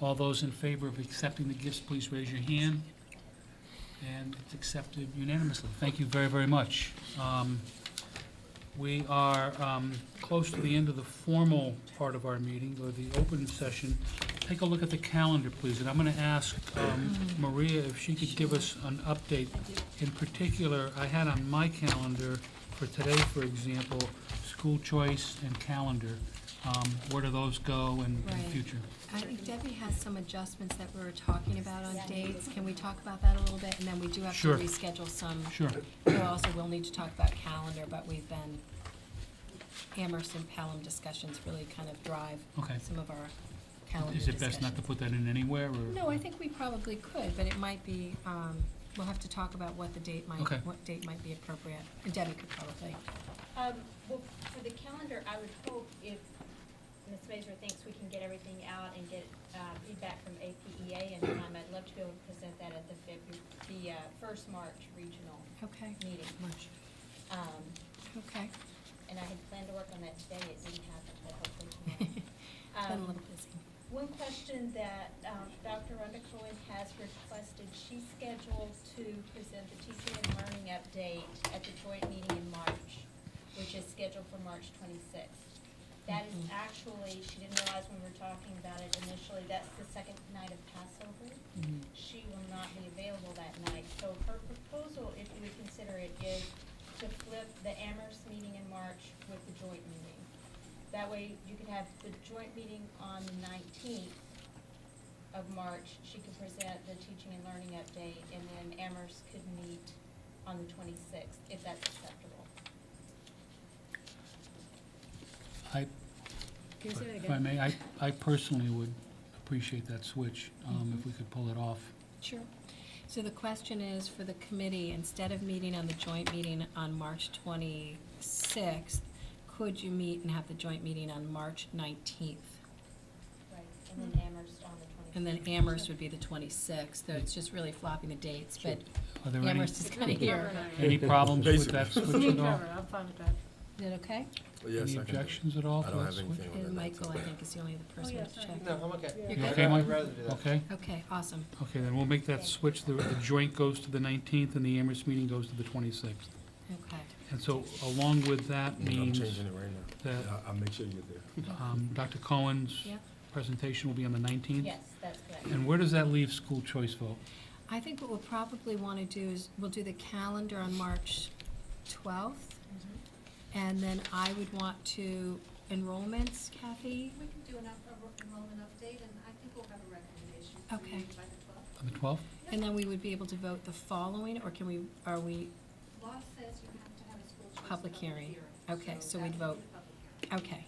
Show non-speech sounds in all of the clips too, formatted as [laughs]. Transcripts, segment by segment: All those in favor of accepting the gifts, please raise your hand. And it's accepted unanimously. Thank you very, very much. Um, We are um, close to the end of the formal part of our meeting, or the open session. Take a look at the calendar, please, and I'm going to ask um, Maria if she could give us an update. In particular, I had on my calendar for today, for example, school choice and calendar. Um, Where do those go in in Right. future? I think Debbie has some adjustments that we were talking about on dates. Can we talk about that a little bit? And then we do have to Sure. reschedule some. Sure. We also will need to talk about calendar, but we've been, Amherst and Pelham discussions really kind of drive Okay. some of our calendar Is discussions. it best not to put that in anywhere, or? No, I think we probably could, but it might be, um, we'll have to talk about what the date might, Okay. what date might be appropriate. And Debbie could probably. Um, well, for the calendar, I would hope if Ms. Mazur thinks we can get everything out and get, uh, feedback from E APEA in time, I'd love to be able to present that at the February, the, uh, first March regional Okay. meeting. March. Um, Okay. and I had planned to work on that today, it didn't happen, but hopefully It's tomorrow. [laughs] been a [laughs] Um, little busy. one question that um, Dr. Rhonda Cohen has requested, she's scheduled to present the teaching and learning update at the joint meeting in March, which is scheduled for March 26th. That is actually, she didn't realize when we were talking about it initially, that's the second night of Passover. She will not be available that night, so her proposal, if you would consider it, is to flip the Amherst meeting in March with the joint meeting. That way, you could have the joint meeting on the nineteenth of March. She could present the teaching and learning update, and then Amherst could meet on the twenty-sixth, if that's acceptable. I, if I may, I, I personally would appreciate that switch, um, if we could pull it off. Sure. So the question is for the committee, instead of meeting on the joint meeting on March 26th, could you meet and have the joint meeting on March 19th? Right. And then Amherst on the twenty-sixth. And then Amherst would be the 26th, so it's just really flopping the dates, but Are there any, Amherst is kind of here. [laughs] any problems with that switch at [laughs] all? I'm fine with that. Is that okay? Yes, Any I can do it. objections at all I to don't that have switch? anything on the And Michael, I 19th. think, is the only other person Oh, yeah, to sorry. check. No, I'm okay. Yeah. You're You good? okay, Mike? I'd rather do that. Okay, Okay, awesome. okay, then we'll make that switch, the, the joint goes to the nineteenth and the Amherst meeting goes to the twenty-sixth. Okay. And so along with that I'm means changing it right now. that, Yeah, I'll make sure you get there. um, Dr. Cohen's Yeah. presentation will be on the nineteenth? Yes, that's correct. And where does that leave school choice vote? I think what we'll probably want to do is, we'll do the calendar on March 12th. Mm-hmm. And then I would want to, enrollments, Kathy? We can do an up- a enrollment update, and I think we'll have a recommendation for Okay. you by the twelfth. On the twelfth? And then we would be able to vote the following, or can we, are we, Law says you have to have a school choice Public public hearing. hearing. Okay, so we'd that would be vote. the public hearing. okay.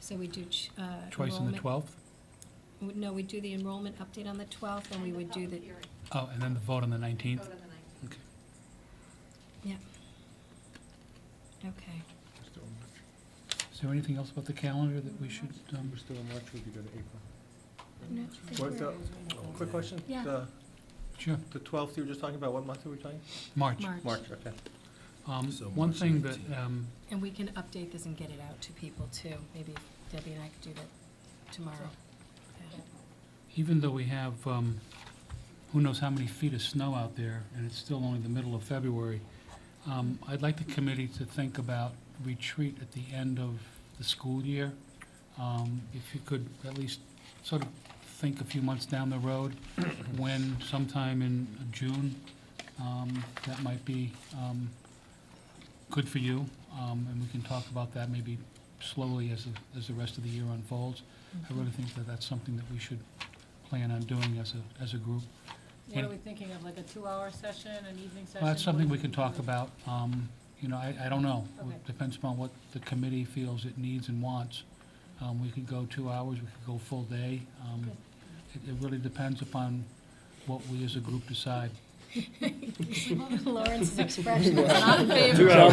So we do, ch- uh, enrollment. Choice on the twelfth? w- No, we do the enrollment update on the twelfth, and we would do the, public hearing. Oh, and then the vote on the nineteenth? Vote on the nineteenth. Okay. okay. Is there anything else about the calendar that we should, um, We're still in March, we could go to April. No, I think What's we're- up? Oh, Quick question? Yeah. The- sure, The twelfth, you were just talking about, what month were we talking? March. March, okay. Um, So One March thing that, 19th. um, and we can update this and get it out to people too, maybe Debbie and I could do that tomorrow. Yeah. even though we have, um, who knows how many feet of snow out there, and it's still only the middle of February, um, I'd like the committee to think about retreat at the end of the school year. Um, If you could at least sort of think a few months down the road, when sometime in June, um, that might be um, good for you, um, and we can talk about that maybe slowly as, the- as the rest of the year unfolds. I really think that that's something that we should plan on doing as a, as a group. What are we thinking of, like a two-hour session, an evening session? Well, that's something we can What talk do you think? about, um, you know, I, I don't know. Okay. It Depends upon what the committee feels it needs and wants. Um, we could go two hours, we could go full day. Um, it, it really depends upon what we as a group decide. [laughs] Lawrence's expression [laughs] is not in favor. I-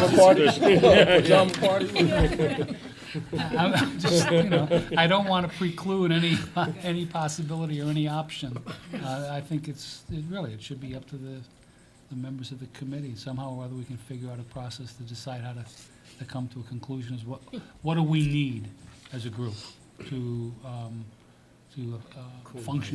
I'm just, you know, I don't want to preclude any, any possibility or any option. Uh, I think it's, it really, it should be up to the, the members of the committee. Somehow or other, we can figure out a process to decide how to, to come to a conclusion is what, what do we need as a group to, um, to uh, Cool. function